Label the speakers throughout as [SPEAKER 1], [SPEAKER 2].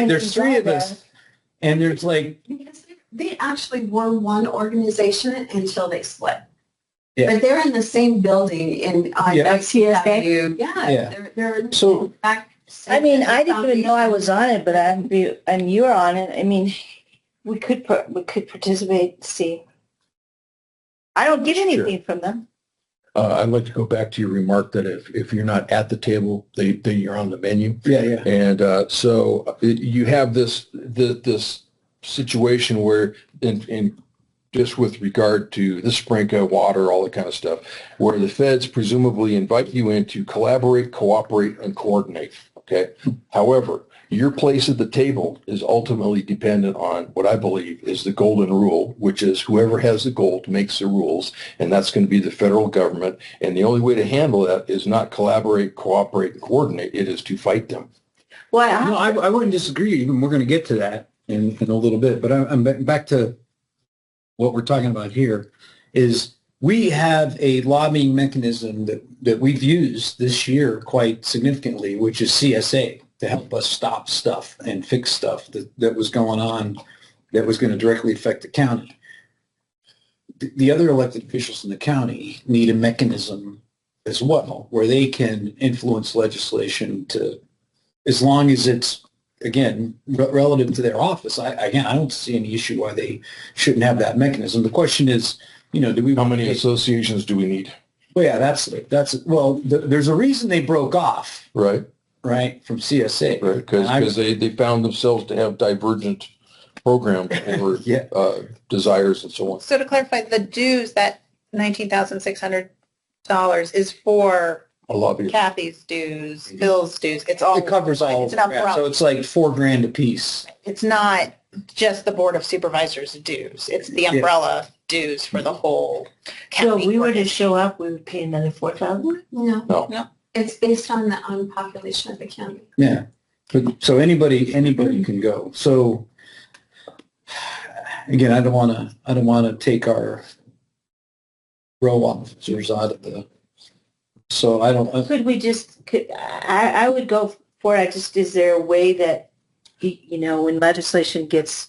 [SPEAKER 1] And
[SPEAKER 2] There's three of us, and there's like,
[SPEAKER 1] Because They actually were one organization until they split.
[SPEAKER 2] Yeah.
[SPEAKER 1] But they're in the same building in,
[SPEAKER 3] uh,
[SPEAKER 1] on
[SPEAKER 2] Yeah.
[SPEAKER 1] Oaks Avenue.
[SPEAKER 2] Yeah.
[SPEAKER 1] Yeah, they're, they're.
[SPEAKER 2] So-
[SPEAKER 1] in fact,
[SPEAKER 3] I mean, I didn't even know I
[SPEAKER 1] foundation.
[SPEAKER 3] was on it, but I'm, be- and you're on it. I mean, we could, par- we could participate, see. I don't get anything from them.
[SPEAKER 4] Uh, I'd like to go back to your remark that if, if you're not at the table, they, then you're on the menu.
[SPEAKER 2] yeah, yeah.
[SPEAKER 4] And uh, so uh, you have this, this, this situation where, and, and just with regard to the sprinkler, water, all that kind of stuff, where the feds presumably invite you in to collaborate, cooperate, and coordinate. Okay. However, your place at the table is ultimately dependent on what I believe is the golden rule, which is whoever has the gold makes the rules, and that's going to be the federal government. And the only way to handle that is not collaborate, cooperate, and coordinate. It is to fight them.
[SPEAKER 3] Well,
[SPEAKER 2] No, I, I wouldn't disagree. Even we're going to get to that in, in a little bit, but I'm, I'm ba- back to what we're talking about here is we have a lobbying mechanism that, that we've used this year quite significantly, which is CSA to help us stop stuff and fix stuff that, that was going on that was going to directly affect the county. The- The other elected officials in the county need a mechanism as well where they can influence legislation to as long as it's again re- relative to their office I, again i don't see any issue why they shouldn't have that mechanism the question is you know do we
[SPEAKER 4] How many associations do we need?
[SPEAKER 2] well, yeah that's that's well th- there's a reason they broke off
[SPEAKER 4] Right,
[SPEAKER 2] right from csa
[SPEAKER 4] right. Because
[SPEAKER 2] I-
[SPEAKER 4] they, they found themselves to have divergent programs over
[SPEAKER 2] yeah
[SPEAKER 4] uh, desires and so on.
[SPEAKER 5] So to clarify, the dues, that nineteen thousand six hundred dollars is for
[SPEAKER 4] A lobby.
[SPEAKER 5] Kathy's dues, Bill's dues. It's all,
[SPEAKER 2] it covers all
[SPEAKER 5] It's
[SPEAKER 2] of
[SPEAKER 5] an
[SPEAKER 2] it. Yeah, so
[SPEAKER 5] umbrella.
[SPEAKER 2] it's like four grand a piece
[SPEAKER 5] It's not just the Board of Supervisors dues. It's the umbrella dues for the whole
[SPEAKER 3] so if
[SPEAKER 5] county.
[SPEAKER 3] we were to
[SPEAKER 5] organization.
[SPEAKER 3] show up, we would pay another four thousand?
[SPEAKER 1] No.
[SPEAKER 4] No.
[SPEAKER 5] No.
[SPEAKER 1] It's based on the, on population of the county.
[SPEAKER 2] yeah but, so anybody anybody can go so again i don't want to i don't want to take our row officers out of the so i don't
[SPEAKER 3] Could we just, could, I, I would go for it. I just, is there a way that, y- you know, when legislation gets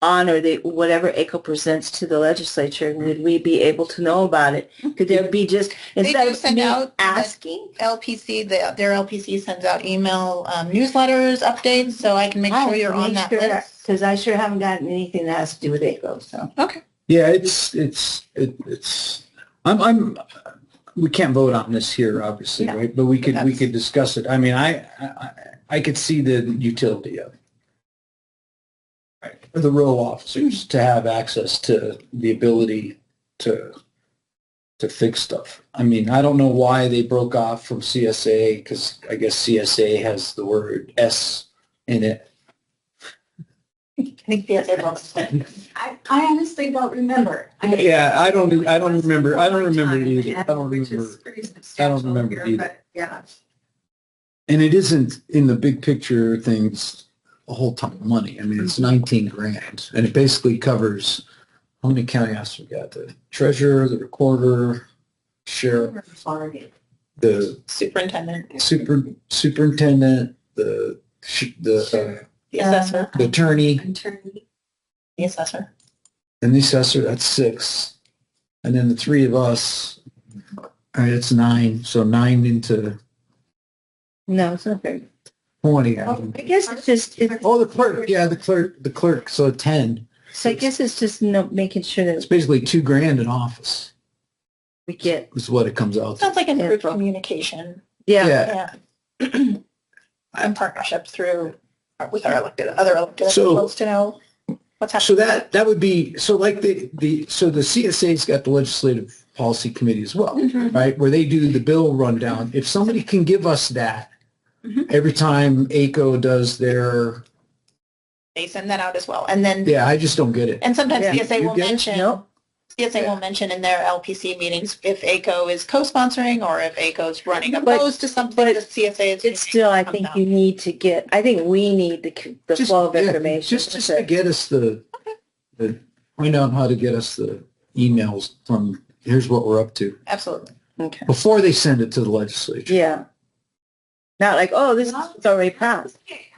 [SPEAKER 3] on or they, whatever ACO presents to the legislature,
[SPEAKER 5] Mm-hmm.
[SPEAKER 3] would we be able to know about it? Could there be just, instead
[SPEAKER 5] do
[SPEAKER 3] of
[SPEAKER 5] send
[SPEAKER 3] me
[SPEAKER 5] out the-
[SPEAKER 3] asking?
[SPEAKER 5] LPC, the- their LPC sends out email um, newsletters, updates, so I can make
[SPEAKER 3] "Oh,
[SPEAKER 5] sure you're on that list.
[SPEAKER 3] Because I sure haven't gotten anything that has to do with ACO, so.
[SPEAKER 2] Yeah, it's, it's, it- it's, I'm, I'm, we can't vote on this here, obviously,
[SPEAKER 3] No.
[SPEAKER 2] right? But we could, we
[SPEAKER 5] That's-
[SPEAKER 2] could discuss it. I mean, I, I, I- I could see the utility of it. For the row officers to have access to the ability to, to fix stuff. I mean, I don't know why they broke off from CSA because I guess CSA has the word S in it.
[SPEAKER 3] I think the other one's-
[SPEAKER 1] I, I honestly don't remember. I-
[SPEAKER 2] Yeah, I don't, e, I don't remember, I don't remember it either. I don't
[SPEAKER 1] Which
[SPEAKER 2] remember.
[SPEAKER 1] is pretty substantial
[SPEAKER 2] remember
[SPEAKER 1] here,
[SPEAKER 2] either.
[SPEAKER 1] but Yeah.
[SPEAKER 2] And it isn't in the big picture of things a whole ton of money. I mean, it's 19 grand and it basically covers how many county officers we got? The treasurer, the recorder, sheriff, the
[SPEAKER 5] Superintendent,
[SPEAKER 2] super superintendent, the sh- the, uh,
[SPEAKER 5] the assessor,
[SPEAKER 2] the attorney
[SPEAKER 1] Attorney.
[SPEAKER 5] the assessor.
[SPEAKER 2] and the assessor. That's six. And then the three of us. All right, that's nine. So nine into
[SPEAKER 3] No, it's not fair.
[SPEAKER 2] 20. Oh, I
[SPEAKER 3] I
[SPEAKER 2] think.
[SPEAKER 3] guess it's just, it-
[SPEAKER 2] Oh, the clerk. Yeah, the clerk. The clerk. So 10.
[SPEAKER 3] so I guess it's just no, making sure
[SPEAKER 2] It's
[SPEAKER 3] that
[SPEAKER 2] basically two grand in office.
[SPEAKER 3] we get,
[SPEAKER 2] is what it comes out to.
[SPEAKER 5] Sounds like improved
[SPEAKER 3] Yeah.
[SPEAKER 5] communication.
[SPEAKER 3] yeah.
[SPEAKER 5] Yeah. And partnership through, with our elected, other elected
[SPEAKER 2] So-
[SPEAKER 5] officials to know what's happening.
[SPEAKER 2] So that that would be so like the the so the CSA's got the legislative policy committee as well,
[SPEAKER 3] Mm-hmm.
[SPEAKER 2] right? Where they do the bill rundown. If somebody can give us that
[SPEAKER 3] Mm-hmm.
[SPEAKER 5] Mhm.
[SPEAKER 2] every time ACO does their
[SPEAKER 5] They send that out as well. And then,
[SPEAKER 2] yeah, I just don't get it.
[SPEAKER 5] and sometimes
[SPEAKER 3] Yeah.
[SPEAKER 5] CSA
[SPEAKER 2] You
[SPEAKER 5] will
[SPEAKER 2] get it?
[SPEAKER 5] mention,
[SPEAKER 3] No.
[SPEAKER 5] CSA will mention in their LPC meetings if ACO is co-sponsoring or if ACO is running
[SPEAKER 3] But-
[SPEAKER 5] opposed to something,
[SPEAKER 3] but
[SPEAKER 5] the CSA is.
[SPEAKER 3] It's still, I think you need to get, I think we need the, c- the
[SPEAKER 2] Just-
[SPEAKER 3] flow of
[SPEAKER 2] yeah,
[SPEAKER 3] information.
[SPEAKER 2] Just just to get us the the find out how to get us the emails from here's what we're up to
[SPEAKER 5] Absolutely.
[SPEAKER 3] Okay.
[SPEAKER 2] before they send it to the legislature.
[SPEAKER 3] Yeah. Not like, oh, this is already passed.